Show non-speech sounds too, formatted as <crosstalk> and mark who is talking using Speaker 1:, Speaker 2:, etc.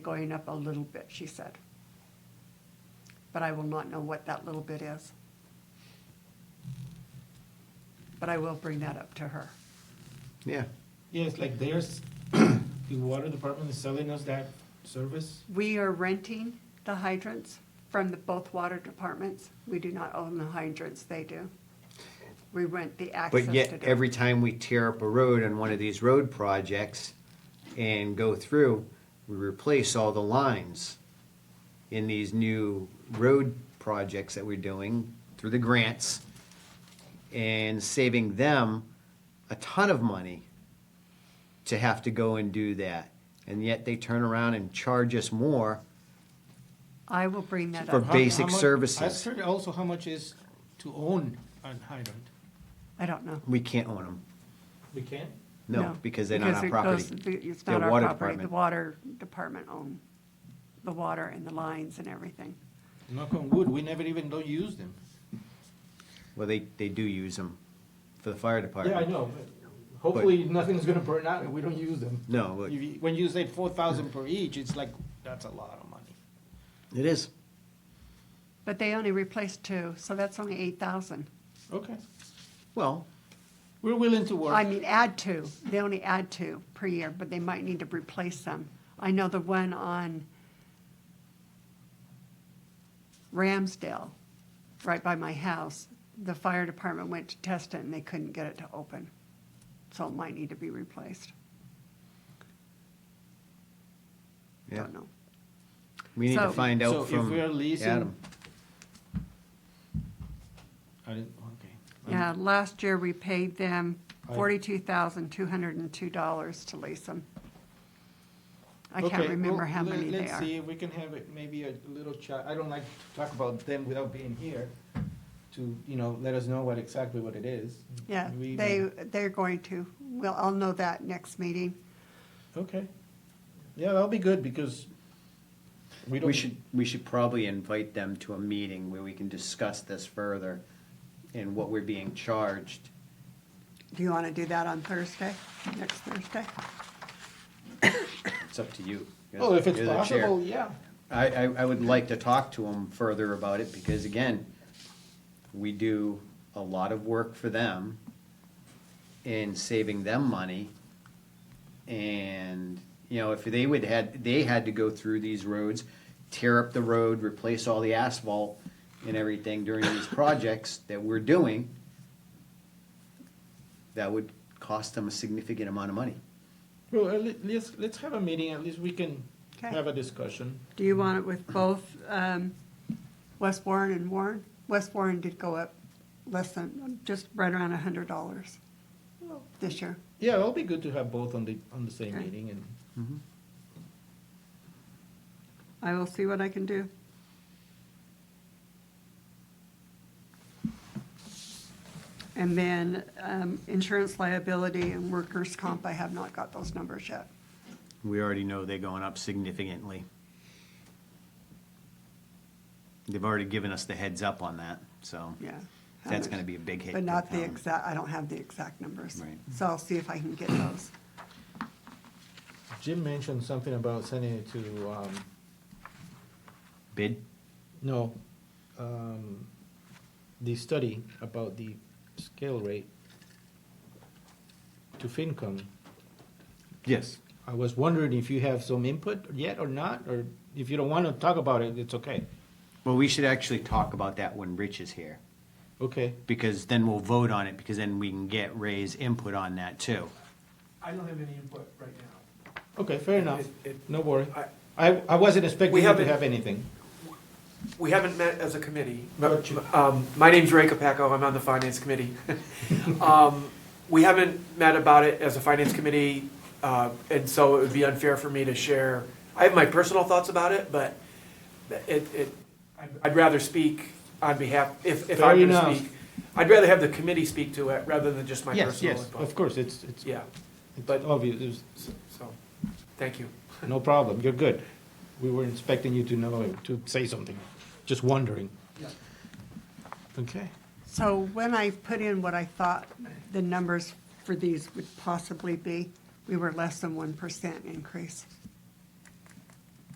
Speaker 1: going up a little bit, she said. But I will not know what that little bit is. But I will bring that up to her.
Speaker 2: Yeah,
Speaker 3: Yes, like there's, the water department is selling us that service.
Speaker 1: We are renting the hydrants from the both water departments. We do not own the hydrants, they do. We rent the access
Speaker 2: but
Speaker 1: to
Speaker 2: yet
Speaker 1: them.
Speaker 2: every time we tear up a road on one of these road projects and go through, we replace all the lines in these new road projects that we're doing through the grants and saving them a ton of money to have to go and do that. And yet they turn around and charge us more.
Speaker 1: I will bring that
Speaker 2: For
Speaker 1: up.
Speaker 3: How-
Speaker 2: basic
Speaker 3: how much-
Speaker 2: services.
Speaker 3: Ask her also how much is to own an hydrant.
Speaker 1: I don't know.
Speaker 2: We can't own them.
Speaker 3: We can?
Speaker 2: No, because they're not our
Speaker 1: it
Speaker 2: property.
Speaker 1: goes- It's
Speaker 2: They're
Speaker 1: not our
Speaker 2: water
Speaker 1: property. The
Speaker 2: department.
Speaker 1: water department own the water and the lines and everything.
Speaker 3: Knock on wood, we never even don't use them.
Speaker 2: Well, they, they do use them for the fire department.
Speaker 3: Yeah, I know, but hopefully nothing's gonna burn out and we don't use them.
Speaker 2: No, but
Speaker 3: If you- When you say four thousand per each, it's like, that's a lot of money. e-
Speaker 2: it is.
Speaker 1: But they only replaced two, so that's only eight thousand.
Speaker 3: Okay,
Speaker 2: Well,
Speaker 3: we're willing to work.
Speaker 1: I mean, add two, they only add two per year, but they might need to replace them. I know the one on Ramsdale, right by my house, the fire department went to test it and they couldn't get it to open. So it might need to be replaced,
Speaker 2: yeah,
Speaker 1: don't know.
Speaker 2: we need to
Speaker 1: So-
Speaker 2: find
Speaker 3: So
Speaker 2: out
Speaker 3: if
Speaker 2: from
Speaker 3: we are leasing-
Speaker 2: Adam.
Speaker 3: I didn't, okay.
Speaker 1: Yeah, last year we paid them
Speaker 3: Um, I-
Speaker 1: forty-two thousand, two hundred and two dollars to lease them. I
Speaker 3: Okay,
Speaker 1: can't remember
Speaker 3: well,
Speaker 1: how
Speaker 3: let-
Speaker 1: many they
Speaker 3: Let's
Speaker 1: are.
Speaker 3: see, if we can have it, maybe a little chat, I don't like to talk about them without being here, to, you know, let us know what, exactly what it is.
Speaker 1: Yeah,
Speaker 3: We-
Speaker 1: they, they're going to, well, I'll know that next meeting.
Speaker 3: Okay, yeah, that'll be good, because we don't.
Speaker 2: We should, we should probably invite them to a meeting where we can discuss this further and what we're being charged.
Speaker 1: Do you want to do that on Thursday, next Thursday?
Speaker 2: It's up to you. You're the-
Speaker 3: Oh, if it's
Speaker 2: you're the chair.
Speaker 3: possible, yeah,
Speaker 2: I, I, I would like to talk to them further about it because again, we do a lot of work for them in saving them money. And, you know, if they would had, they had to go through these roads, tear up the road, replace all the asphalt and everything during these projects that we're doing, that would cost them a significant amount of money.
Speaker 3: well, at le- let's, let's have a meeting, at least we can
Speaker 1: Okay.
Speaker 3: have a discussion.
Speaker 1: Do you want it with both um, West Warren and Warren? West Warren did go up less than, just right around a hundred dollars this year.
Speaker 3: Yeah, it'll be good to have both on the, on the same
Speaker 1: Okay.
Speaker 3: meeting, and,
Speaker 1: I will see what I can do. And then um, insurance liability and workers' comp, I have not got those numbers yet.
Speaker 2: We already know they're going up significantly. They've already given us the heads up on that, so
Speaker 1: Yeah.
Speaker 2: that's gonna be a big hit.
Speaker 1: But
Speaker 2: to
Speaker 1: not the
Speaker 2: town.
Speaker 1: exact, I don't have the exact numbers.
Speaker 2: Right.
Speaker 1: So I'll see if I can get those.
Speaker 3: Jim mentioned something about sending it to, um,
Speaker 2: Bid,
Speaker 3: No, um, the study about the scale rate to FinCom.
Speaker 2: yes.
Speaker 3: I was wondering if you have some input yet or not, or if you don't want to talk about it, it's okay.
Speaker 2: Well, we should actually talk about that when Rich is here,
Speaker 3: Okay,
Speaker 2: because then we'll vote on it, because then we can get Ray's input on that too.
Speaker 4: I don't have any input right now.
Speaker 3: okay, fair enough.
Speaker 4: It- it-
Speaker 3: No worry.
Speaker 4: I-
Speaker 3: I, I wasn't
Speaker 4: We
Speaker 3: expecting you to
Speaker 4: haven't-
Speaker 3: have anything.
Speaker 4: We haven't met as a committee.
Speaker 3: But you-
Speaker 4: Um, My name's Ray Capaco, I'm on the Finance Committee. <laughs> Um, We haven't met about it as a Finance Committee, uh, and so it would be unfair for me to share. I have my personal thoughts about it, but it, it, I'd- I'd rather speak on behalf, if, if I'm
Speaker 3: Fair
Speaker 4: going to
Speaker 3: enough.
Speaker 4: speak. I'd rather have the committee speak to it rather than just my
Speaker 2: Yes,
Speaker 4: personal
Speaker 2: yes,
Speaker 4: input.
Speaker 3: Of course, it's, it's,
Speaker 4: Yeah,
Speaker 3: it's obvious, It's-
Speaker 4: so, so, thank you.
Speaker 3: no problem, you're good. We were expecting you to know, to say something, just wondering. Okay.
Speaker 1: So when I put in what I thought the numbers for these would possibly be, we were less than one percent increase.